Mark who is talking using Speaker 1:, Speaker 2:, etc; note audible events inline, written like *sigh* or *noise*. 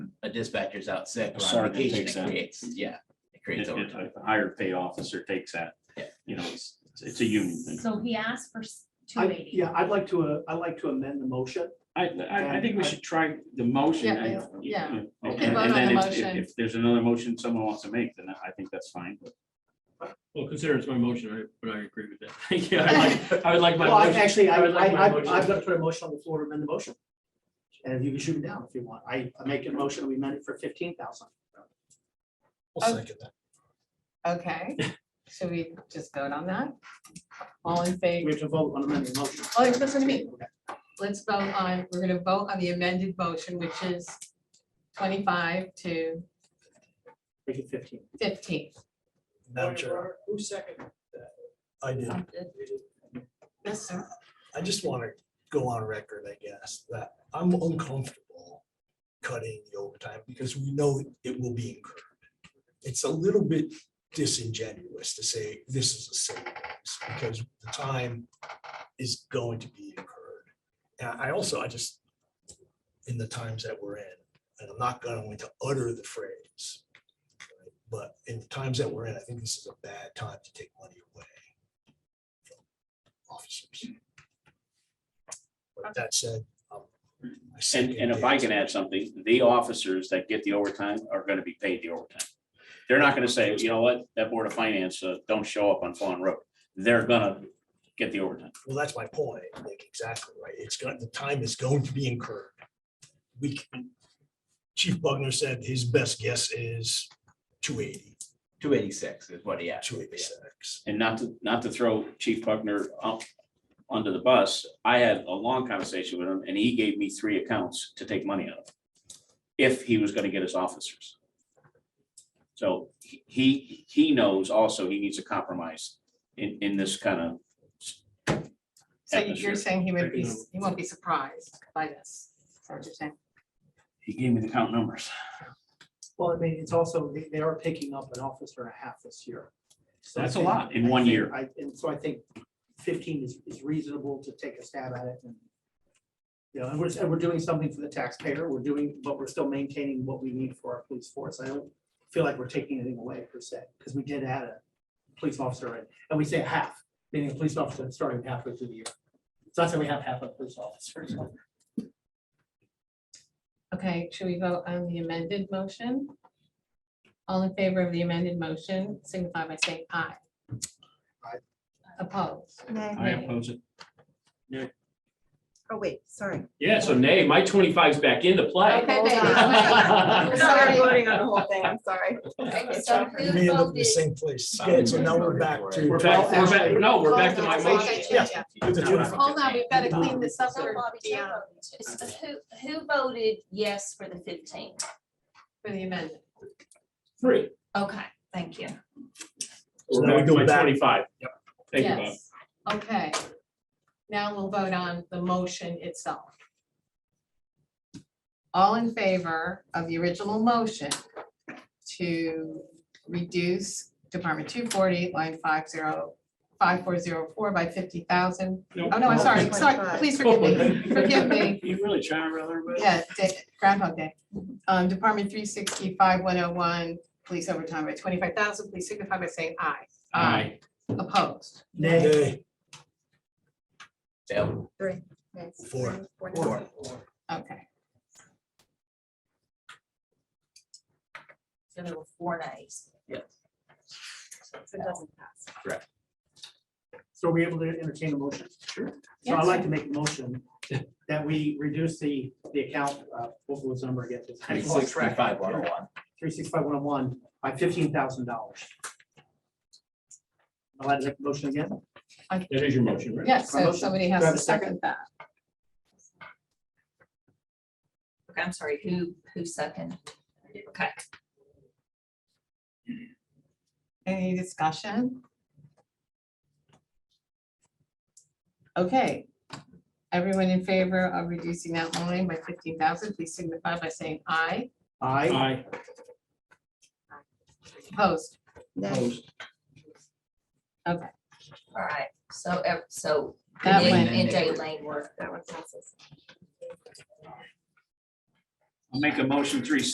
Speaker 1: dispatcher's out sick
Speaker 2: A
Speaker 1: or on
Speaker 2: sergeant
Speaker 1: vacation,
Speaker 2: takes
Speaker 1: it
Speaker 2: that.
Speaker 1: creates, yeah. It creates
Speaker 2: If if
Speaker 1: overtime.
Speaker 2: a higher pay officer takes that,
Speaker 1: Yeah.
Speaker 2: you know, it's, it's a union thing.
Speaker 3: So he asked for two
Speaker 4: I,
Speaker 3: eighty.
Speaker 4: yeah, I'd like to, uh, I'd like to amend the motion.
Speaker 2: I, I, I think we should try the motion.
Speaker 5: Yeah,
Speaker 2: and-
Speaker 5: yeah.
Speaker 2: and-
Speaker 5: We can
Speaker 2: and
Speaker 5: vote on
Speaker 2: then if-
Speaker 5: the
Speaker 2: if-
Speaker 5: motion.
Speaker 2: If there's another motion someone wants to make, then I think that's fine. but-
Speaker 6: Well, consider it's my motion, right? but I agree with that. *laughs*
Speaker 5: *laughs*
Speaker 6: Yeah, I like, I would like my
Speaker 4: Well, I-
Speaker 6: motion.
Speaker 4: actually, I,
Speaker 6: I would
Speaker 4: I,
Speaker 6: like my
Speaker 4: I-
Speaker 6: motion.
Speaker 4: I've got to put a motion on the floor to amend the motion. And you can shoot it down if you want. I I make a motion, we amend it for fifteen thousand.
Speaker 5: I'll Okay, should we just vote on that? All in
Speaker 4: We
Speaker 5: favor,
Speaker 4: have to vote on amending the motion.
Speaker 5: Oh, that's what I mean.
Speaker 4: Okay.
Speaker 5: let's vote on, we're gonna vote on the amended motion, which is twenty-five to
Speaker 4: Make it fifteen.
Speaker 5: fifteen.
Speaker 7: Madam Chair,
Speaker 4: Who second?
Speaker 7: I did.
Speaker 5: Yes, sir.
Speaker 7: I just want to go on record, I guess, that I'm uncomfortable cutting the overtime because we know it will be incurred. It's a little bit disingenuous to say this is a savings because the time is going to be incurred. And I also, I just, in the times that we're in, and I'm not going to utter the phrase, right, but in the times that we're in, I think this is a bad time to take money away from officers. But that said. um, I
Speaker 2: And,
Speaker 7: second
Speaker 2: and if I
Speaker 7: Dave's
Speaker 2: can add something, the officers that get the overtime are gonna be paid the overtime. They're not gonna say, you know what, that Board of Finance, uh, don't show up on Fawn Road. They're gonna get the overtime.
Speaker 7: Well, that's my point. Like, exactly right. It's got, the time is going to be incurred. We, can- Chief Bugner said his best guess is 280,
Speaker 1: Two eighty-six is what he
Speaker 7: 286.
Speaker 1: asked.
Speaker 2: And not to, not to throw Chief Buckner up under the bus, I had a long conversation with him and he gave me three accounts to take money out of. If he was gonna get his officers. So he- he, he knows also he needs a compromise in, in this kind of
Speaker 5: So you're
Speaker 2: Atmosphere.
Speaker 5: saying he would be, he won't be surprised by this, is that what you're saying?
Speaker 2: He gave me the count numbers.
Speaker 4: Well, I mean, it's also, they- they are picking up an officer and a half this year. So I
Speaker 2: That's a
Speaker 4: think-
Speaker 2: lot in
Speaker 4: I
Speaker 2: one
Speaker 4: think-
Speaker 2: year.
Speaker 4: I, and so I think fifteen is, is reasonable to take a stab at it and. You know, and we're, and we're doing something for the taxpayer, we're doing, but we're still maintaining what we need for our police force. I don't feel like we're taking anything away per se, because we did add a police officer, and- and we say half, meaning a police officer that's starting halfway through the year. So that's why we have half a police officer.
Speaker 5: Okay, should we vote on the amended motion? All in favor of the amended motion, signify by saying aye.
Speaker 4: Aye.
Speaker 5: Opposed?
Speaker 2: I
Speaker 5: Nay.
Speaker 2: oppose it.
Speaker 8: Oh, wait, sorry.
Speaker 6: Yeah, so nay, my 25's back into play.
Speaker 5: Okay,
Speaker 8: Hold
Speaker 6: *laughs*
Speaker 5: wait, wait.
Speaker 8: I'm
Speaker 5: Sorry.
Speaker 8: sorry, voting on the whole thing, I'm sorry.
Speaker 3: So
Speaker 7: We
Speaker 3: who
Speaker 7: may end up in the
Speaker 3: voted,
Speaker 7: same place.
Speaker 1: Sorry,
Speaker 7: Yeah, so now we're
Speaker 1: voted
Speaker 7: back
Speaker 1: for it.
Speaker 7: to.
Speaker 6: We're back, we're back, no, we're back to my
Speaker 5: Hold on,
Speaker 6: motion.
Speaker 5: wait,
Speaker 7: Yeah.
Speaker 5: wait, wait.
Speaker 7: With the uniform.
Speaker 5: Hold on, we've got to clean this up.
Speaker 3: So
Speaker 5: or
Speaker 3: Bobby, take
Speaker 5: beyond
Speaker 3: It's- who, who voted yes for the fifteen?
Speaker 5: For the amendment.
Speaker 6: Three.
Speaker 3: Okay, thank you.
Speaker 7: So
Speaker 6: We're
Speaker 7: now we
Speaker 6: back to
Speaker 7: go
Speaker 6: my
Speaker 7: back.
Speaker 6: twenty-five. Thank you, Bob.
Speaker 5: Yes. Okay. Now we'll vote on the motion itself. All in favor of the original motion to reduce Department two forty, line five zero, five four zero four by fifty thousand?
Speaker 2: Nope.
Speaker 5: Oh, no, I'm sorry, sorry,
Speaker 8: 25.
Speaker 5: please forgive *laughs* me, forgive
Speaker 6: *laughs*
Speaker 5: me.
Speaker 2: You really trying to rather, but.
Speaker 5: Yeah, Da- Groundhog Day. Um, Department three sixty-five, one oh one, police overtime by twenty-five thousand, please signify by saying aye.
Speaker 2: Aye.
Speaker 5: Opposed?
Speaker 4: Nay.
Speaker 7: Nay.
Speaker 1: So,
Speaker 8: Three.
Speaker 7: Four.
Speaker 1: Four.
Speaker 5: Okay,
Speaker 3: So there were four nays.
Speaker 8: So it doesn't pass.
Speaker 4: So are we able to entertain a motion? Sure. So I'd like to make a motion that we reduce the, the account, uh, what was the number again?
Speaker 1: Three sixty-five, one oh one.
Speaker 4: Three six five one oh one by fifteen thousand dollars. I'd like to make the motion again.
Speaker 6: That is your motion, right?
Speaker 5: yes, so
Speaker 4: Motion.
Speaker 5: somebody
Speaker 4: Do I
Speaker 5: has
Speaker 4: have
Speaker 5: to
Speaker 4: a second?
Speaker 5: second that.
Speaker 3: Okay, I'm sorry, who, who second? Okay,
Speaker 5: Any discussion? Okay. Everyone in favor of reducing that line by fifteen thousand, please signify by saying aye.
Speaker 4: I,
Speaker 6: Aye.
Speaker 5: Opposed?
Speaker 8: Nay.
Speaker 5: Okay,
Speaker 3: all right, so, ev- so.
Speaker 5: that
Speaker 3: Nick
Speaker 5: went.
Speaker 3: And Jay Lane were
Speaker 8: That one passes.
Speaker 2: I'll make a motion three sixty